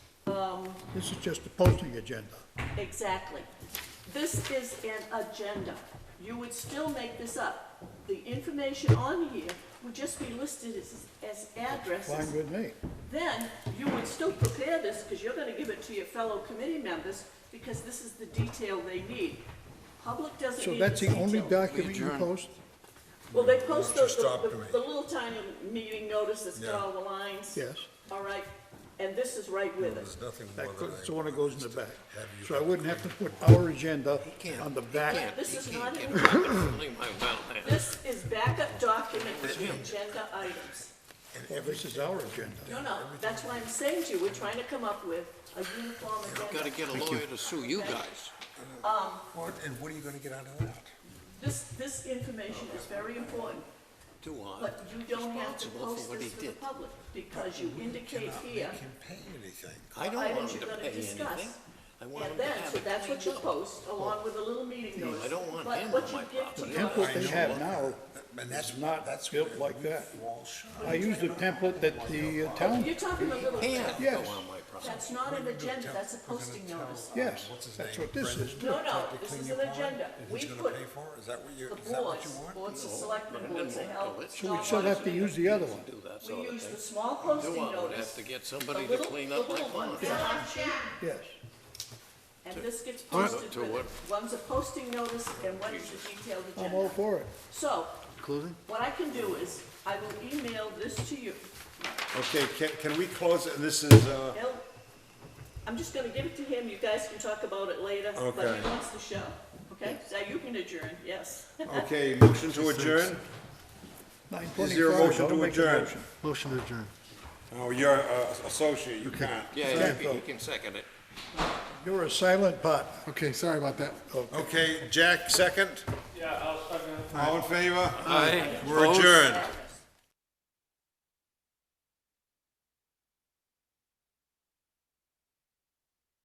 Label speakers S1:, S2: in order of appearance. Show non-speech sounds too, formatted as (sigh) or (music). S1: This is just a posting agenda.
S2: Exactly. This is an agenda. You would still make this up. The information on here would just be listed as, as
S1: Fine
S2: addresses.
S1: with me.
S2: Then you would still prepare this, because you're gonna give it to your fellow committee members, because this is the detail they need. Public doesn't
S1: So
S2: need
S1: that's
S2: this
S1: the only
S2: detail.
S1: document you post?
S2: Well, they post
S3: Just
S2: those, the,
S3: stop doing
S2: the-
S3: it.
S2: the little tiny meeting notice that's got
S3: Yeah.
S2: all the lines.
S1: Yes.
S2: All right, and this is right with it.
S3: There's nothing
S1: That
S3: more
S1: goes-
S3: than I.
S1: So when it goes in the back.
S3: Have you-
S1: So I wouldn't have to put our agenda
S4: can't.
S1: on the
S4: Yeah,
S1: back.
S2: This
S4: you
S2: is
S4: can't
S2: not
S4: get
S2: in-
S4: rid of it. Leave my well now.
S2: This is backup document to agenda items.
S1: Well, this is our agenda.
S2: No, no, that's why I'm saying to you, we're trying to come up with a uniform
S4: Gotta
S2: agenda.
S4: get a lawyer to sue you guys.
S3: What, and what are you gonna get out of that?
S2: This, this information is very important,
S4: Too hard.
S2: but you don't have to
S4: Responsible for
S2: post
S4: what
S2: this
S4: he
S2: to the
S4: did.
S2: public because you indicate here,
S3: Make him pay anything.
S4: I don't want
S2: items
S4: him
S2: you're
S4: to
S2: gonna
S4: pay anything.
S2: discuss.
S4: I want him
S2: and
S4: to
S2: then,
S4: have
S2: so
S4: it
S2: that's what you
S4: cleaned up.
S2: post along with a little meeting notice.
S4: I don't want
S2: But
S4: him
S2: what
S4: on
S2: you
S4: my
S2: give to
S4: property.
S1: The
S2: your-
S1: Template they
S3: I know.
S1: have now,
S3: And that's,
S1: not
S3: that's
S1: built
S3: where
S1: like
S3: we
S1: that.
S3: fall short.
S1: I use the template that the uh, town,
S2: You're talking a little,
S4: Can't go
S1: Yes.
S4: on my property.
S2: that's not an agenda, that's a posting notice.
S1: yes, that's what this is. too.
S2: No, no,
S3: To
S2: this
S3: clean
S2: is
S3: your
S2: an
S3: pond,
S2: agenda.
S3: and
S2: We
S3: Who's gonna
S2: put
S3: pay for it? Is that what you,
S2: the
S3: is that what
S2: boards,
S3: you want?
S2: boards of selectmen, boards of health.
S4: So
S1: We still have to use the other one.
S4: Do that
S2: We
S4: sort of
S2: use the
S4: thing.
S2: small
S4: Do
S2: posting
S4: I would have
S2: notice,
S4: to get
S2: the
S4: somebody to
S2: little,
S4: clean
S2: the
S4: up my
S2: little ones,
S4: pond.
S2: that aren't cheap,
S1: Yes.
S2: and this gets
S4: All right.
S2: posted
S4: To
S2: with it.
S4: what?
S2: One's a posting notice and one's a detailed
S1: I'm all
S2: agenda.
S1: for it.
S2: So, what I can do is, I will email this to you.
S5: Okay, can, can we close, it? this is, uh,
S2: He'll, I'm just gonna give it to him, you guys can talk about it later, but he
S5: Okay.
S2: wants the show, okay? So you can adjourn, yes.
S5: okay, motion to adjourn?
S1: Nine
S5: Is there a
S1: twenty-five,
S5: motion
S1: I'll
S5: to
S1: make a
S5: adjourn?
S1: motion.
S6: Motion to adjourn.
S5: Oh, you're uh, associate, you can't.
S4: Yeah, you
S1: Second.
S4: can- you can second it.
S1: You're a silent partner.
S6: Okay, sorry about that.
S5: Okay, Jack, second?
S7: Yeah, I'll second.
S5: All in favor?
S4: Aye.
S5: We're adjourned.
S2: (laughs)